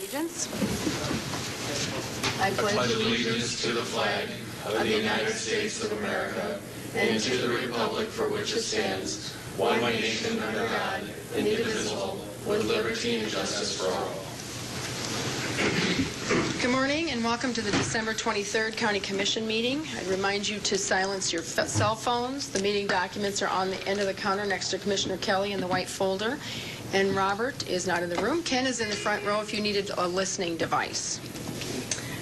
allegiance? I pledge allegiance to the flag of the United States of America and to the republic for which it stands, one nation under God, indivisible, with liberty and justice for all. Good morning and welcome to the December 23rd County Commission meeting. I'd remind you to silence your f- cell phones. The meeting documents are on the end of the counter next to Commissioner Kelly in the white folder. And Robert is not in the room. Ken is in the front row if you needed a listening device.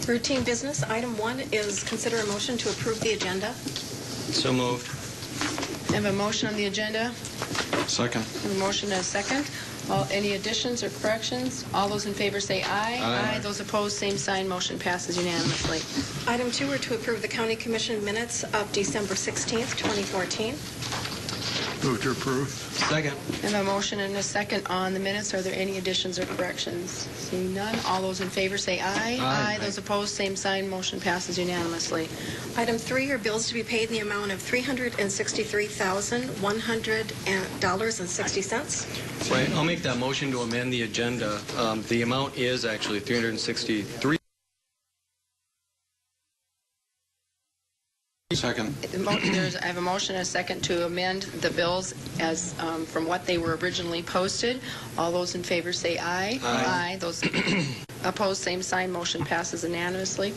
Routine business, item one is consider a motion to approve the agenda. So moved. I have a motion on the agenda. Second. A motion and a second. All- Any additions or corrections? All those in favor say aye. Aye. Those opposed, same sign. Motion passes unanimously. Item two are to approve the county commission minutes of December 16th, 2014. Move to approve. Second. I have a motion and a second on the minutes. Are there any additions or corrections? Seeing none, all those in favor say aye. Aye. Those opposed, same sign. Motion passes unanimously. Item three are bills to be paid in the amount of $363,100.60. Right, I'll make that motion to amend the agenda. Um, The amount is actually 363. Second. The mo- There's, I have a motion and a second to amend the bills as, um, from what they were originally posted. All those in favor say aye. Aye. Those opposed, same sign. Motion passes unanimously.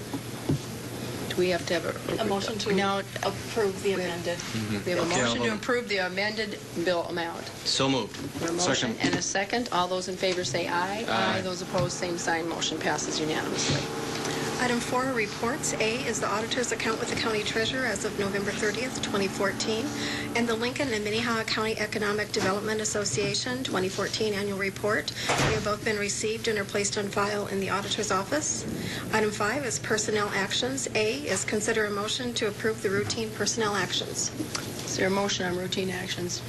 Do we have to have a... A motion to No, approve the amended. we have a Okay, I'll motion to vote. approve the amended bill amount. So moved. A motion and a second. All those in favor say aye. Aye. Those opposed, same sign. Motion passes unanimously. Item four are reports. A is the auditor's account with the county treasurer as of November 30th, 2014, and the Lincoln and Minnehaha County Economic Development Association 2014 annual report. They have both been received and are placed on file in the auditor's office. Item five is personnel actions. A is consider a motion to approve the routine personnel actions. Is there a motion on routine actions?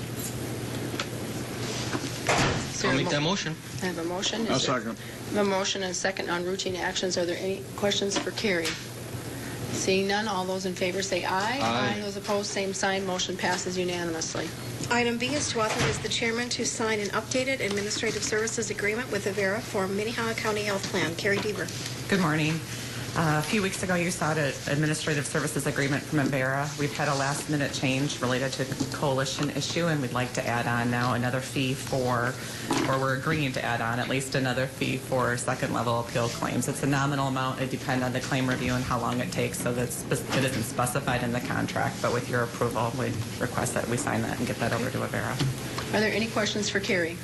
Is there I'll a make mo- that motion. I have a motion. I'll Is there- second. I have A motion and a second on routine actions. Are there any questions for Carrie? Seeing none, all those in favor say aye. Aye. Those opposed, same sign. Motion passes unanimously. Item B is to authorize the chairman to sign an updated administrative services agreement with Avera for Minnehaha County Health Plan. Carrie Deaver. Good morning. Uh, A few weeks ago, you saw the administrative services agreement from Embera. We've had a last-minute change related to the coalition issue, and we'd like to add on now another fee for, or we're agreeing to add on at least another fee for second-level appeal claims. It's a nominal amount. It depends on the claim review and how long it takes, so that's, it isn't specified in the contract. But with your approval, we request that we sign that and get that over to Embera. Are there any questions for Carrie?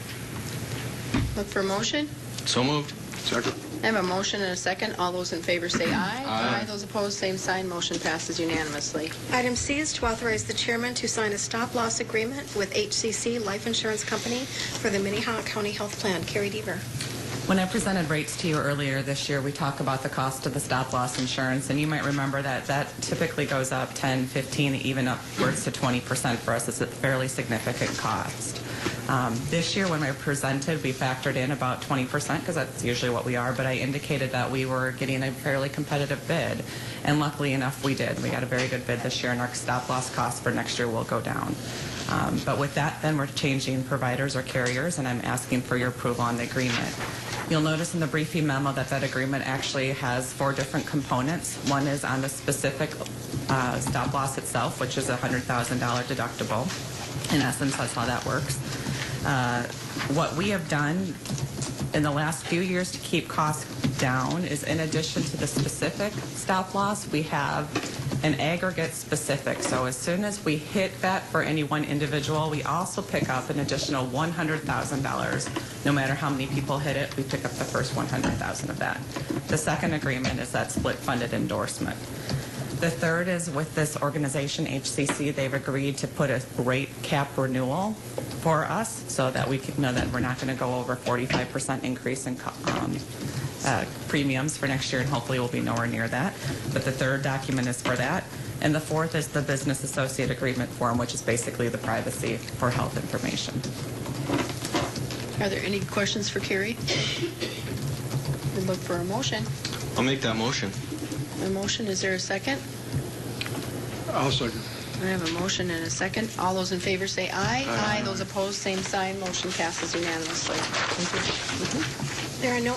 Look for a motion. So moved. Second. I have a motion and a second. All those in favor say aye. Aye. Those opposed, same sign. Motion passes unanimously. Item C is to authorize the chairman to sign a stop-loss agreement with HCC Life Insurance Company for the Minnehaha County Health Plan. Carrie Deaver. When I presented rates to you earlier this year, we talked about the cost of the stop-loss insurance, and you might remember that that typically goes up 10, 15, even upwards to 20% for us. It's a fairly significant cost. Um, This year, when I presented, we factored in about 20% because that's usually what we are, but I indicated that we were getting a fairly competitive bid, and luckily enough, we did. We got a very good bid this year, and our stop-loss cost for next year will go down. Um, But with that, then we're changing providers or carriers, and I'm asking for your approval on the agreement. You'll notice in the briefing memo that that agreement actually has four different components. One is on the specific uh, stop loss itself, which is a $100,000 deductible. In essence, that's how that works. Uh, What we have done in the last few years to keep costs down is in addition to the specific stop loss, we have an aggregate specific. So as soon as we hit that for any one individual, we also pick up an additional $100,000. No matter how many people hit it, we pick up the first 100,000 of that. The second agreement is that split funded endorsement. The third is with this organization, HCC, they've agreed to put a rate cap renewal for us so that we can know that we're not going to go over 45% increase in co- um, uh, premiums for next year, and hopefully we'll be nowhere near that. But the third document is for that. And the fourth is the business associate agreement form, which is basically the privacy for health information. Are there any questions for Carrie? We look for a motion. I'll make that motion. A motion, is there a second? I'll second. I have a motion and a second. All those in favor say aye. Aye. Those opposed, same sign. Motion passes unanimously. There are no